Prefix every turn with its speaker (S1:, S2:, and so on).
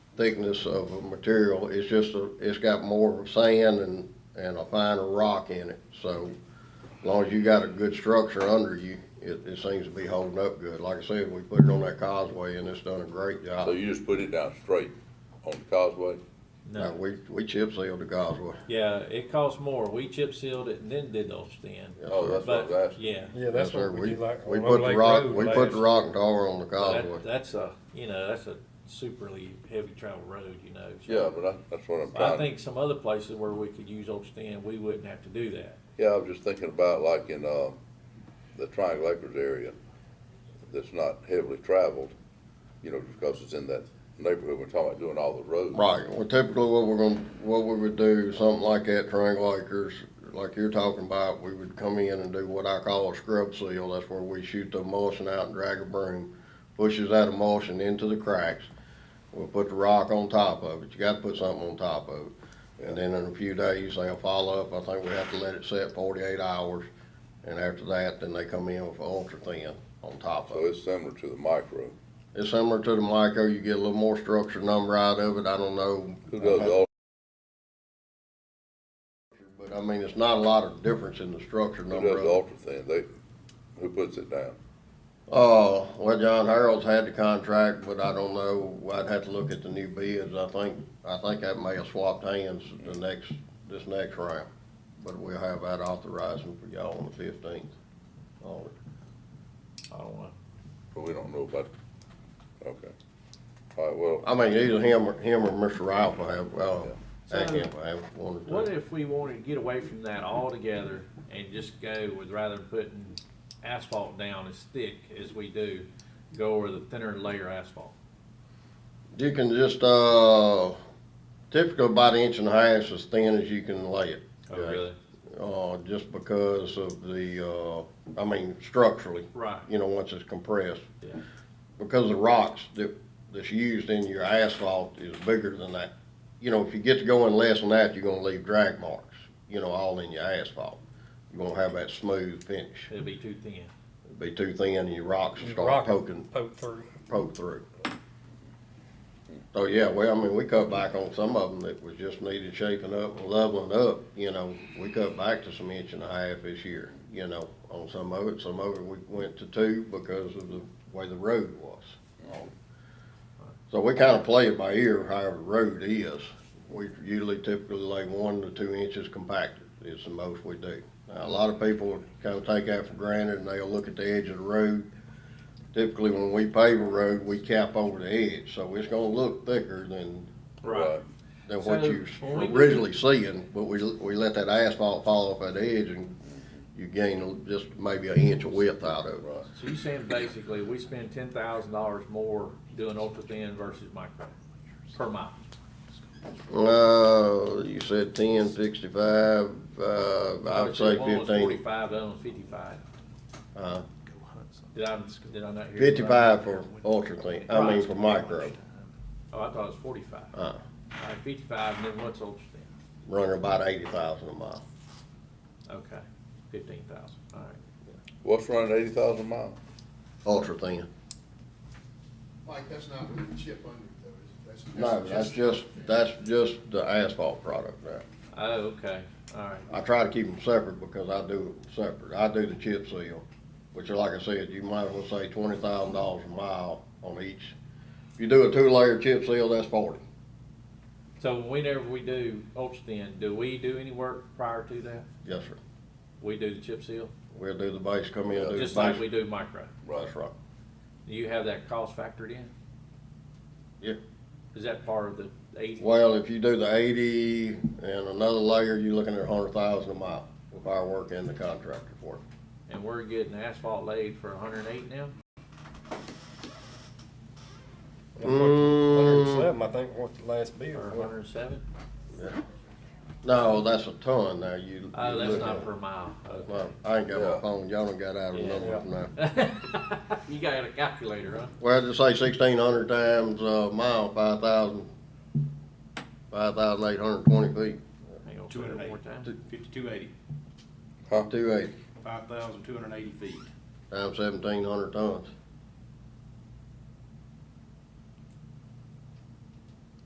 S1: thickness of a material, it's just, a- it's got more sand and, and a finer rock in it, so as long as you got a good structure under you, it, it seems to be holding up good. Like I said, we put it on that causeway and it's done a great job.
S2: Oh.
S3: So you just put it down straight on the causeway?
S1: Now, we, we chip sealed the causeway.
S2: Yeah, it costs more. We chip sealed it and then did those thin.
S1: Yes,
S3: Oh,
S1: sir.
S3: that's what I was
S2: But,
S3: asking.
S2: yeah,
S4: Yeah,
S1: Yes,
S4: that's
S1: sir.
S4: what we
S1: We,
S4: did like
S1: we
S4: on
S1: put
S4: Old
S1: the
S4: Lake
S1: rock,
S4: Road
S1: we put
S4: last.
S1: the rock and tar on the
S3: Oh,
S1: causeway.
S2: that, that's a, you know, that's a superly heavy travel road, you know. so-
S3: Yeah, but I, that's what I'm
S2: I
S3: trying, to-
S2: think some other places where we could use old stand, we wouldn't have to do that.
S3: yeah, I was just thinking about like in, uh, the Triangle Acres area that's not heavily traveled, you know, because it's in that neighborhood, we're talking about doing all the roads.
S1: Right, well typically what we're gonna, what we would do, something like that, triangle acres, like you're talking about, we would come in and do what I call a scrub seal, that's where we shoot the emulsion out and drag a broom, pushes that emulsion into the cracks, we'll put the rock on top of it, you gotta put something on top of it. And then in a few days, they'll follow up, I think we have to let it set forty-eight hours, and after that, then they come in with ultra thin on top of it.
S3: So it's similar to the micro.
S1: It's similar to the micro, you get a little more structure number out of it, I don't know.
S3: Who does all,
S1: But I mean, it's not a lot of difference in the structure
S3: who
S1: number
S3: does the
S1: of.
S3: ultra thing? They, who puts it down?
S1: Uh, well, John Harold's had the contract, but I don't know, I'd have to look at the new bids, I think, I think that may have swapped hands the next, this next round. But we'll have that authorizing for y'all on the fifteenth.
S2: I don't know.
S3: But we don't know about, okay. All right, well,
S1: I mean, either him or, him or Mr. Ralph will have, well, Hackett will have one or
S2: What
S1: two.
S2: if we wanted to get away from that altogether and just go with rather than putting asphalt down as thick as we do, go over the thinner layer asphalt?
S1: You can just, uh, typically about an inch and a half is as thin as you can lay it.
S2: Oh,
S1: Jack.
S2: really?
S1: uh, just because of the, uh, I mean, structurally,
S2: Right,
S1: you know, once it's compressed.
S2: yeah,
S1: Because the rocks that, that's used in your asphalt is bigger than that. You know, if you get to going less than that, you're gonna leave drag marks, you know, all in your asphalt. You're gonna have that smooth finish.
S2: it'd be too thin.
S1: It'd Be too thin and your rocks will
S4: Your
S1: start
S4: rock-
S1: poking,
S4: Poke through.
S1: poke through. So, yeah, well, I mean, we cut back on some of them that was just needed shaping up and leveling up, you know. We cut back to some inch and a half this year, you know, on some of it. Some of it we went to two because of the way the road was. So we kind of play it by ear, however the road is. We usually typically lay one to two inches compacted is the most we do. Now, a lot of people kind of take that for granted and they'll look at the edge of the road typically when we pave a road, we cap over the edge, so it's gonna look thicker than,
S3: right,
S1: than what
S2: So,
S1: you
S2: when we
S1: was originally seeing, but we, we let that asphalt fall off that edge and you gain just maybe an inch of width out of it.
S3: right.
S2: So you're saying basically, we spend ten thousand dollars more doing ultra thin versus micro per mile?
S1: Uh, you said ten, sixty-five, uh, I would say
S2: One was
S1: fifteen,
S2: Forty-five, the other one's fifty-five.
S1: uh,
S2: Did I, did I not hear? you right?
S1: fifty-five for ultra thin, I mean for micro.
S2: Oh, I thought it was forty-five. All
S1: Uh,
S2: right, fifty-five, and then what's ultra thin?
S1: running about eighty thousand a mile.
S2: Okay, fifteen thousand, all right.
S3: What's running eighty thousand miles?
S1: Ultra thin.
S5: Mike, that's not with the chip under it, though, is it?
S1: No, that's just, that's just the asphalt product there.
S2: Oh, okay, all right.
S1: I try to keep them separate because I do it separate. I do the chip seal, which like I said, you might as well say twenty thousand dollars a mile on each. If you do a two-layer chip seal, that's forty.
S2: So whenever we do ultra thin, do we do any work prior to that?
S1: Yes, sir.
S2: We do the chip seal,
S1: We'll do the base, come in, do the base.
S2: just like we do micro.
S1: That's right.
S2: Do you have that cost factored in?
S1: Yeah.
S2: Is that part of the eighty?
S1: Well, if you do the eighty and another layer, you're looking at a hundred thousand a mile with our work and the contractor for it.
S2: And we're getting asphalt laid for hundred and eight now?
S4: Hundred
S1: Mm-hmm.
S4: and
S1: Mm.
S4: seven, I think, what the last bid
S1: Uh-huh.
S2: Or
S4: was.
S2: hundred and seven?
S1: No, that's a ton now, you.
S2: Oh,
S1: you
S2: that's
S1: look
S2: not
S1: at-
S2: per mile, okay.
S1: Well, I ain't got
S3: Yeah.
S1: my phone, y'all done got out of the
S2: Yeah.
S1: number now.
S2: You got a calculator, huh?
S1: Well, just say sixteen hundred times a mile, five thousand, five thousand eight hundred twenty feet,
S2: Hang on, say it one more
S6: 208.
S2: time.
S6: Fifty-two eighty,
S1: two eighty,
S6: five thousand two hundred and eighty feet.
S1: times seventeen hundred tons.